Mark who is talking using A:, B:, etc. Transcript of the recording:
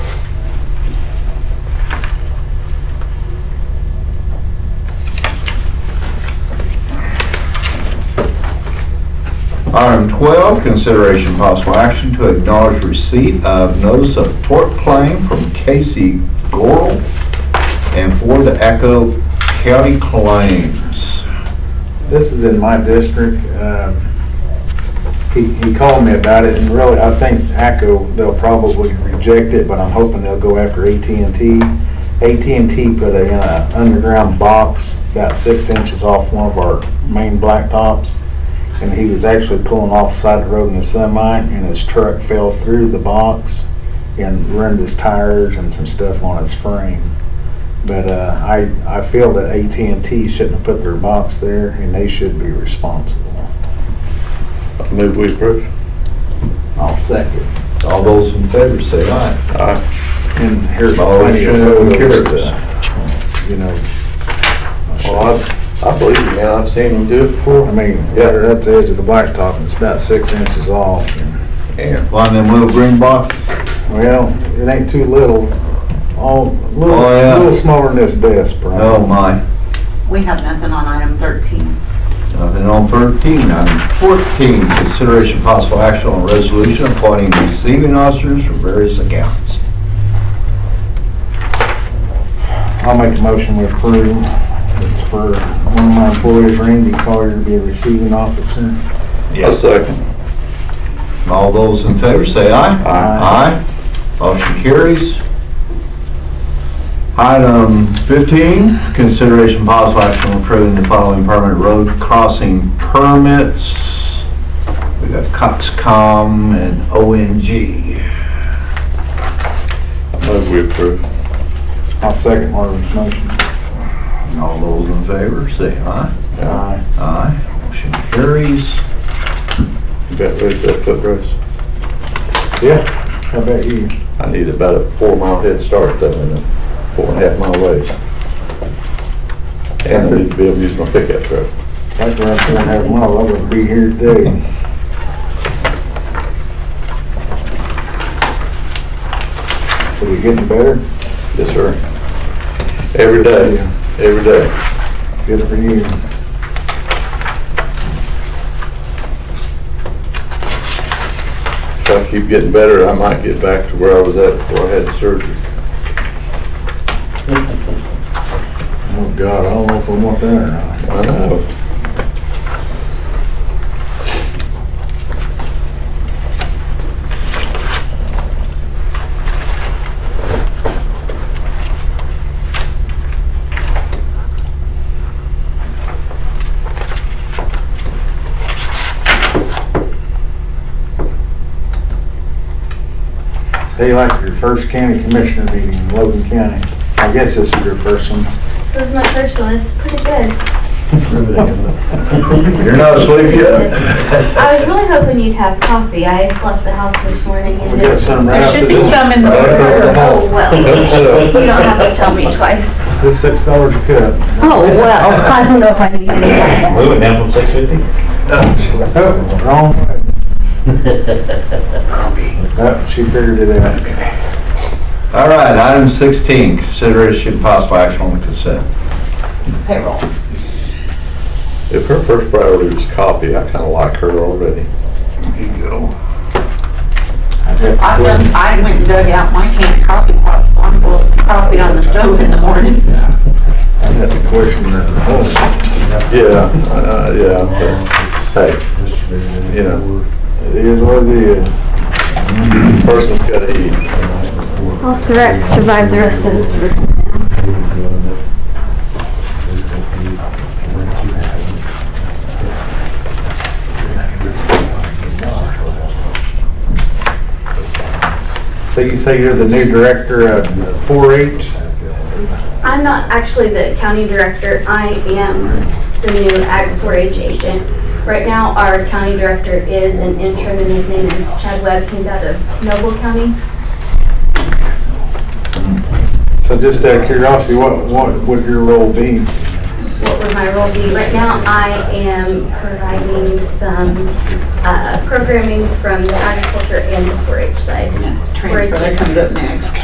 A: Item 12, consideration possible action to acknowledge receipt of notice of tort claim from Casey Gorel and for the Echo County claims.
B: This is in my district. Um, He he called me about it, and really, I think ACO, they'll probably reject it, but I'm hoping they'll go after at and t at and t put a uh, underground box about six inches off one of our main blacktops, and he was actually pulling off the side of the road in his semi, and his truck fell through the box and ruined his tires and some stuff on his frame. But uh, I, I feel that at and t shouldn't have put their box there, and they should be responsible.
C: Move we approve.
B: I'll second.
A: All those in favor say aye.
C: Aye.
B: And here's plenty
A: Motion
B: of photos.
A: carries.
B: to, You know,
C: Well, I, I believe you, man. I've seen them do it before.
B: I mean,
C: Yeah.
B: right at the edge of the blacktop, and it's about six inches off.
A: And find them little green boxes.
B: Well, it ain't too little, all, little,
A: Oh, yeah.
B: little smaller than this desk,
A: Oh,
B: Brian.
A: my.
D: We have nothing on item 13.
A: Nothing Uh, on 13. Item 14, consideration possible action on resolution appointing receiving officers for various accounts.
B: I'll make a motion we approve. It's for one of my employees, Randy Collier, to be a receiving officer.
C: A second.
A: All those in favor say aye.
B: Aye.
A: Aye. Motion carries. Item 15, consideration possible action on approving the following permanent road crossing permits. We got Coxcom and ONG.
C: Move we approve.
B: I'll second Marvin's motion.
A: All those in favor say aye.
B: Aye.
A: Aye. Motion carries.
C: You bet there's that foot race.
B: Yeah, how about you?
C: I need about a four mile head start though, and a four and a half mile ways. And I need to be able to use my pickup truck.
B: That's where I'm gonna have one, I would be here today. Is it getting better?
C: Yes, sir. Every day, every day.
B: Good for you.
C: If I keep getting better, I might get back to where I was at before I had the surgery.
B: Oh, God, I don't know if I want that or not.
C: I know.
B: Stay like your first county commissioner meeting in Logan County. I guess this is your first one.
E: This is my first one. It's pretty good.
A: You're not asleep yet?
E: I was really hoping you'd have coffee. I left the house this morning and
B: We got
E: didn't.
B: some right
D: There
B: after
D: should be
B: this.
D: some in the
C: Right across the
D: order.
B: hall.
D: Oh, well. You don't have to tell me twice.
B: This six dollars a cup.
D: Oh, well, I don't know if I need any of that.
F: Moving down from six fifty?
B: Oh, Wrong way. Oh, she figured it out.
A: All right, item 16, consideration possible action on the consent.
D: Payroll.
C: If her first priority was coffee, I kinda like her already.
A: There you go.
B: I'd have to
D: I've
B: quit.
D: done, I went and dug out my canned coffee pots, I'm boiling some coffee on the stove in the morning.
B: I'd have to question that whole,
C: Yeah, uh, yeah, but, hey, you know,
B: it is what it is.
C: person's gotta eat.
E: I'll sur- survive the rest of this room.
B: So you say you're the new director of 4-H?
E: I'm not actually the county director. I am the new Ag 4-H agent. Right now, our county director is an intern and his name is Chad Webb. He's out of Noble County.
B: So just out of curiosity, what, what would your role be?
E: what would my role be? Right now, I am providing some uh, programming from the agriculture and the 4-H side.
D: Transfer that comes up next.